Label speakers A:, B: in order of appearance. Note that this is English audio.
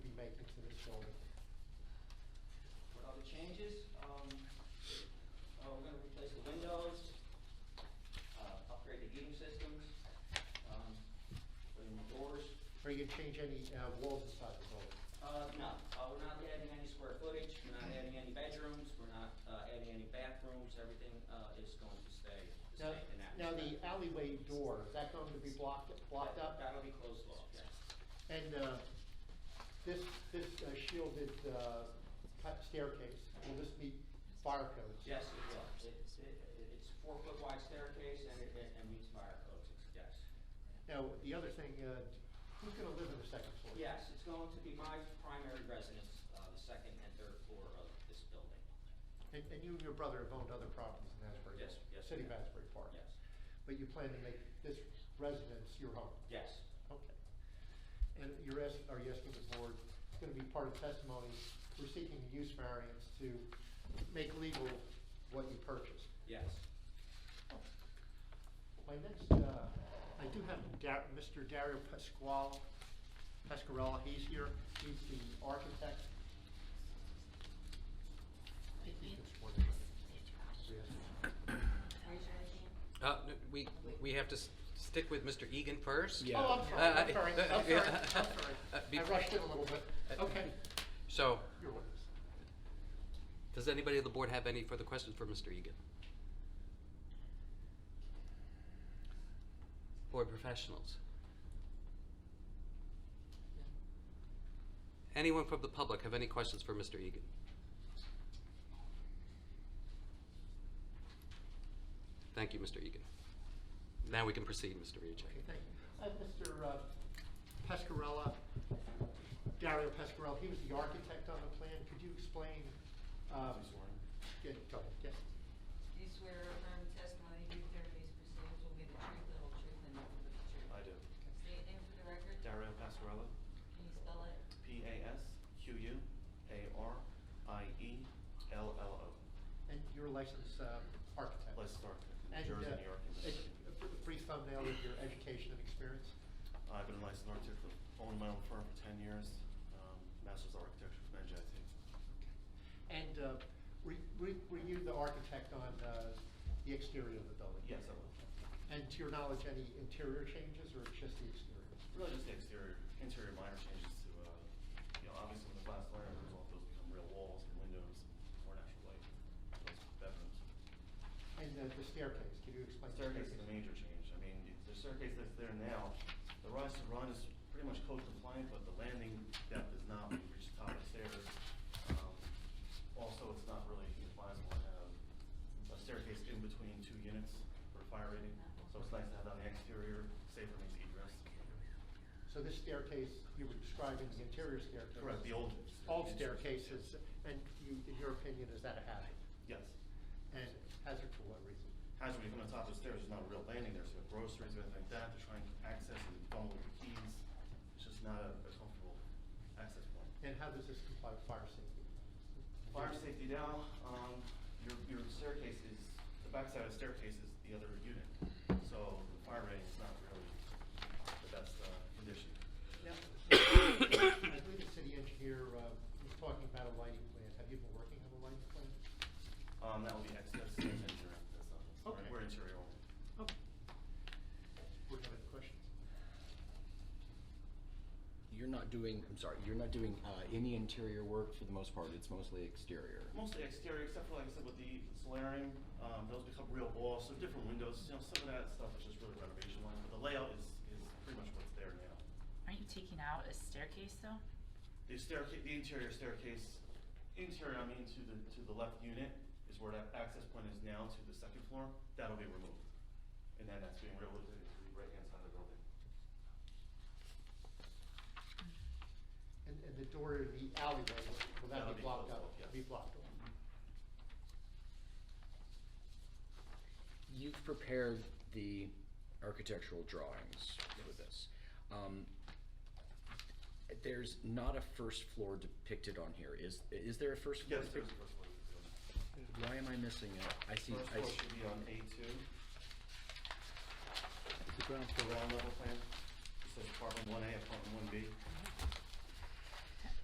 A: shoulder. What other changes? Um, uh, we're gonna replace the windows, uh, upgrade the heating systems, um, put in the doors.
B: Are you gonna change any uh, walls inside the building?
A: Uh, no, uh, we're not adding any square footage, we're not adding any bedrooms, we're not, uh, adding any bathrooms, everything, uh, is going to stay the
B: Now,
A: same in that.
B: now the
A: respect.
B: alleyway door, is that going to be blocked, blocked up?
A: That'll be closed off, yes.
B: And uh, this, this uh, shielded uh, cut staircase, will this meet fire codes?
A: Yes, it will. It- it- It's a four-foot wide staircase and it and meets fire codes, yes.
B: Now, the other thing, uh, who's gonna live in the second floor?
A: Yes, it's going to be my primary residence, uh, the second and third floor of this building.
B: And and you and your brother have owned other properties in Asbury?
A: Yes, yes,
B: City of
A: yes.
B: Asbury Park?
A: Yes,
B: But you plan to make this residence your home?
A: yes,
B: Okay. And you're asking, are you asking the board, it's going to be part of testimony, we're seeking a use variance to make legal what you purchased.
A: yes.
B: My next, uh, I do have Dar- Mr. Dario Pasquale, Pasquarella, he's here, he's the architect. I think he's been sworn in. Yes.
C: Raise your right hand.
D: Uh, no, We, we have to s- stick with Mr. Egan first?
E: Yeah.
B: Oh, I'm sorry, I'm sorry, I'm sorry, I'm sorry.
D: Uh,
B: I rushed it a little bit.
D: Uh,
B: Okay,
D: So,
B: you're with us.
D: does anybody on the board have any further questions for Mr. Egan? Board professionals? Anyone from the public have any questions for Mr. Egan? Thank you, Mr. Egan. Now we can proceed, Mr. Riacek.
B: Okay, thank you. Uh, Mr. uh, Pescarella, Dario Pescarella, he was the architect on the plan. Could you explain? um, Yeah, go ahead, yes.
C: Do you swear or affirm the testimony you give during these proceedings will be the truth, the whole truth, and nothing but the truth?
F: I do.
C: State your name for the record.
F: Dario Pasquarello,
C: Can you spell it?
F: E P-A-S-Q-U-A-R-I-E-L-L-O.
B: And you're a licensed uh, architect?
F: Licensed architect,
B: And,
F: New Jersey,
B: uh,
F: New York, and
B: edu-
F: Mississippi.
B: a br- Brief thumbnail of your education and experience?
F: I've been a licensed architect, owning my own firm for 10 years, um, master's of architecture from NJIT.
B: And uh, were were- were you the architect on uh, the exterior of the building?
F: Yes, I will.
B: And to your knowledge, any interior changes or just the exterior?
F: Really just the exterior, interior minor changes to, uh, you know, obviously when the glass liner comes off, those become real walls and windows, and more natural light, those bedrooms.
B: And uh, the staircase, could you explain? the
F: Staircase is a major change. I mean, the staircase that's there now, the rise to run is pretty much code compliant, but the landing depth is not, we reach the top of the stairs. Um, Also, it's not really advisable to have a staircase in between two units for fire rating, so it's nice to have that on the exterior, safer means egress.
B: So this staircase, you were describing the interior staircase?
F: Correct, the old.
B: All staircases, and you, in your opinion, is that a hazard?
F: Yes.
B: And hazard for what reason?
F: As when you come on top of the stairs, there's not a real landing there, so the groceries or anything like that, they're trying to access and fumble with the keys. It's just not a a comfortable access point.
B: And how does this comply with fire safety?
F: Fire safety now, um, your, your staircase is, the backside of the staircase is the other unit. So the fire rating is not really the best, uh, condition.
B: Now, I believe the city engineer uh, was talking about a lighting plan. Have you been working on a lighting plan?
F: Um, that will be excess interior, that's not, that's not-
B: Okay.
F: we're interior only.
B: Okay. Would you have any questions?
E: You're not doing, I'm sorry, you're not doing uh, any interior work for the most part, it's mostly exterior.
F: Mostly exterior, except for, like I said, with the solarium, um, those become real walls, so different windows, you know, some of that stuff is just really renovation line, but the layout is, is pretty much what's there now.
G: Aren't you taking out a staircase though?
F: The staircase, the interior staircase, interior, I mean, to the, to the left unit is where that access point is now to the second floor. That'll be removed. And then that's being removed to the right-hand side of the building.
B: And, and the door in the alleyway, will
F: That'll
B: that be
F: be
B: blocked
F: closed
B: up?
F: off, yes.
B: Be blocked off?
E: You've prepared the architectural drawings for this. Um, There's not a first floor depicted on here, is, is there a first floor?
F: Yes, there's the
E: depic-
F: first floor.
E: Why am I missing it? I see,
F: First
E: I
F: floor
E: see,
F: should be on A2,
E: the ground
F: the
E: floor.
F: ground level plan. It says apartment 1A, apartment 1B.